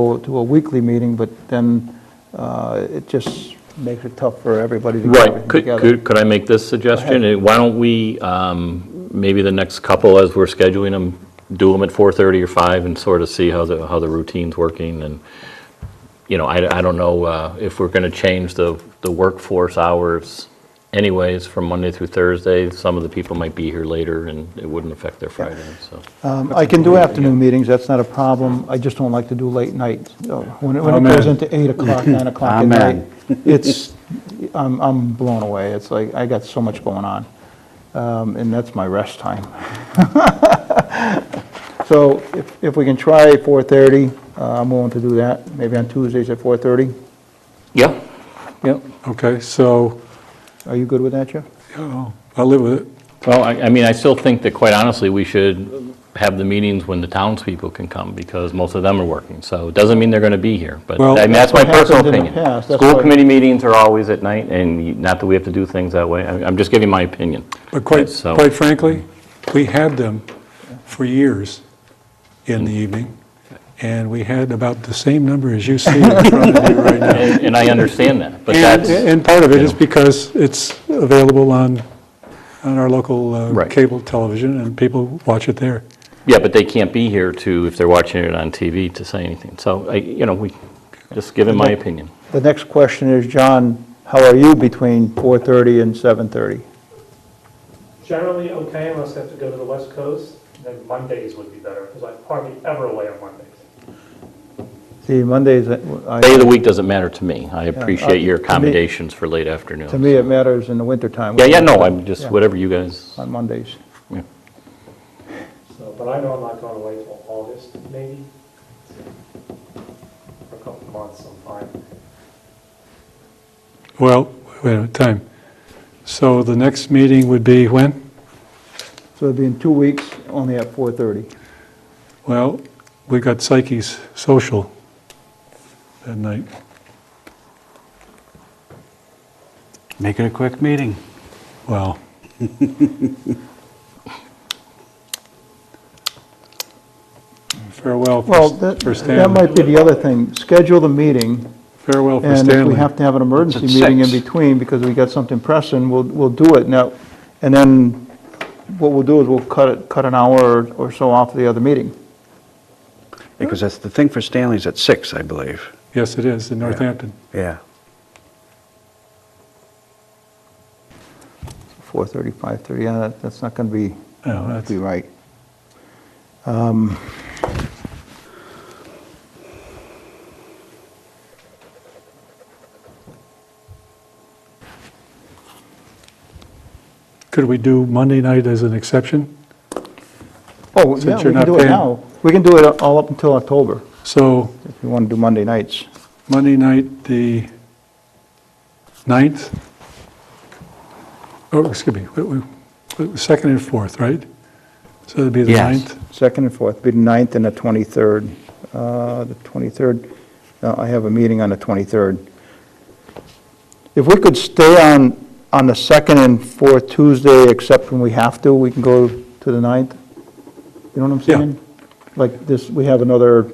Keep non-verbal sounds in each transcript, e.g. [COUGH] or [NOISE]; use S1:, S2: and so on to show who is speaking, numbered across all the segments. S1: go to a weekly meeting, but then uh, it just makes it tough for everybody to get
S2: Right,
S1: everything
S2: could,
S1: together.
S2: could could I make this suggestion? Uh, Why don't we, um, maybe the next couple, as we're scheduling them, do them at 4:30 or 5 and sort of see how the, how the routine's working, and, you know, I, I don't know uh, if we're going to change the, the workforce hours anyways, from Monday through Thursday, some of the people might be here later, and it wouldn't affect their Friday, so.
S1: Um, I can do afternoon meetings, that's not a problem, I just don't like to do late nights. So When
S2: Oh,
S1: it when it
S3: Amen.
S1: goes into 8 o'clock,
S2: [LAUGHS]
S1: 9 o'clock at night,
S3: Amen.
S1: it's, I'm I'm blown away, it's like, I got so much going on, Um, and that's my rest time. [LAUGHS] So if if we can try 4:30, uh, I'm willing to do that, maybe on Tuesdays at 4:30.
S2: Yeah, yeah.
S3: Okay, so,
S1: Are you good with that, Jeff?
S3: yeah, I live with it.
S2: Well, I, I mean, I still think that quite honestly, we should have the meetings when the townspeople can come because most of them are working. So it doesn't mean they're going to be here, but
S3: Well-
S2: I mean, that's
S1: That's
S2: my
S1: what
S2: personal
S1: happened in the
S2: opinion.
S1: past, that's
S2: School
S1: why-
S2: committee meetings are always at night and you- not that we have to do things that way. I- I'm just giving my opinion.
S3: But quite,
S2: So-
S3: quite frankly, we had them for years in the evening, and we had about the same number as you see in front of you right now.
S2: And and I understand that, [LAUGHS] but
S3: And,
S2: that's,
S3: and part of it is
S2: you know.
S3: because it's available on, on our local uh,
S2: Right.
S3: cable television, and people watch it there.
S2: yeah, but they can't be here to, if they're watching it on TV, to say anything. So, I, you know, we, just giving my opinion.
S1: The next question is, John, how are you between 4:30 and 7:30?
S4: Generally okay, unless I have to go to the west coast, then Mondays would be better, because I'm hardly ever away on Mondays.
S1: See, Mondays, uh, I...
S2: Day of the week doesn't matter to me. I
S1: uh,
S2: appreciate your
S1: to me-
S2: accommodations for late afternoon.
S1: To me, it matters in the wintertime.
S2: Yeah, yeah, no, I'm
S1: Yeah,
S2: just, whatever you guys,
S1: On Mondays.
S2: yeah.
S4: So, but I know I'm not going away till August, maybe. For a couple of months, I'm fine.
S3: Well, wait a minute, time. So the next meeting would be when?
S1: So it'd be in two weeks, only at 4:30.
S3: Well, we got Psyche's social that night.
S5: Make it a quick meeting.
S3: Well, [LAUGHS] farewell
S1: Well,
S3: for
S1: that
S3: for
S1: that
S3: Stanley.
S1: might be the other thing, schedule the meeting,
S3: Farewell for
S1: and if we
S3: Stanley.
S1: have to have an emergency
S5: It's at
S1: meeting in
S5: six.
S1: between, because we got something pressing, we'll, we'll do it now. And then what we'll do is we'll cut it, cut an hour or- or so off the other meeting.
S5: Because that's the thing for Stanley's at six, I believe.
S3: Yes, it is, in Northampton.
S5: Yeah.
S1: 4:30, 5:30, yeah, that- that's not going to be,
S3: No,
S1: not be
S3: Oh, that's-
S1: right.
S3: Could we do Monday night as an exception?
S1: Oh, yeah,
S3: Since
S1: we
S3: you're
S1: can
S3: not
S1: do it
S3: paying-
S1: now. We can do it all up until October,
S3: So
S1: if you want to do Monday nights.
S3: Monday night, the 9th? Oh, excuse me, wait, wait, wait, second and fourth, right? So it'd be the
S5: Yes.
S3: 9th?
S1: Second and fourth, be the 9th and the 23rd. Uh, The 23rd, no, I have a meeting on the 23rd. If we could stay on, on the second and fourth Tuesday, except when we have to, we can go to the 9th? You know what I'm
S3: Yeah.
S1: saying? Like this, we have another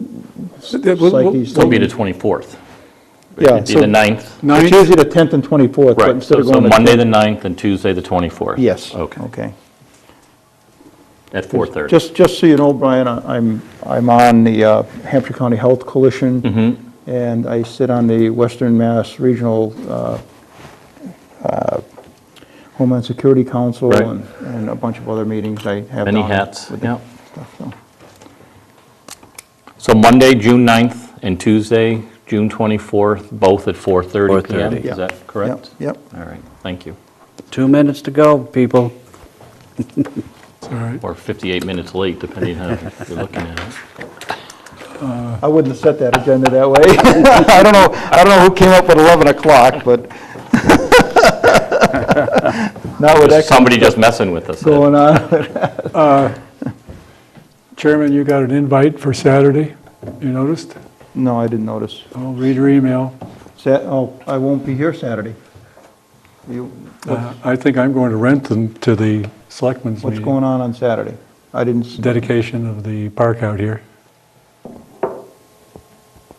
S3: Yeah, we'll- we'll-
S1: psyche.
S2: It'll be the 24th.
S1: Yeah,
S2: It'd be
S1: so-
S2: the 9th.
S1: It's
S3: 9th,
S1: usually the 10th and 24th, but
S2: Right,
S1: instead
S2: so
S1: of
S2: so
S1: going to...
S2: Monday, the 9th, and Tuesday, the 24th.
S1: Yes.
S2: Okay,
S1: Okay.
S2: at 4:30.
S1: Just, just so you know, Brian, I- I'm, I'm on the uh, Hampshire County Health Coalition,
S2: Mm-hmm.
S1: and I sit on the Western Mass Regional uh, uh, Homeland Security Council
S2: Right.
S1: and and a bunch of other meetings I have down.
S2: Many hats,
S1: with
S2: yeah.
S1: stuff, so.
S2: So Monday, June 9th, and Tuesday, June 24th, both at 4:30 PM.
S5: 4:30.
S2: Is that correct?
S1: Yep,
S2: All right, thank you.
S5: Two minutes to go, people.
S3: it's all right.
S2: Or 58 minutes late, depending
S1: [LAUGHS]
S2: on how you're looking at it.
S1: yep. I wouldn't have set that agenda that way. [LAUGHS] I don't know, I don't know who came up with 11 o'clock, but... [LAUGHS] Not with that
S2: Just Somebody just messing with us.
S1: going on. [LAUGHS]
S3: Chairman, you got an invite for Saturday, you noticed?
S1: No, I didn't notice.
S3: Oh, read your email.
S1: Sa- oh, I won't be here Saturday. You,
S3: Uh, I think I'm going to Renton to the selectmen's
S1: what's
S3: meeting.
S1: going on on Saturday? I didn't, s-
S3: Dedication of the park out here.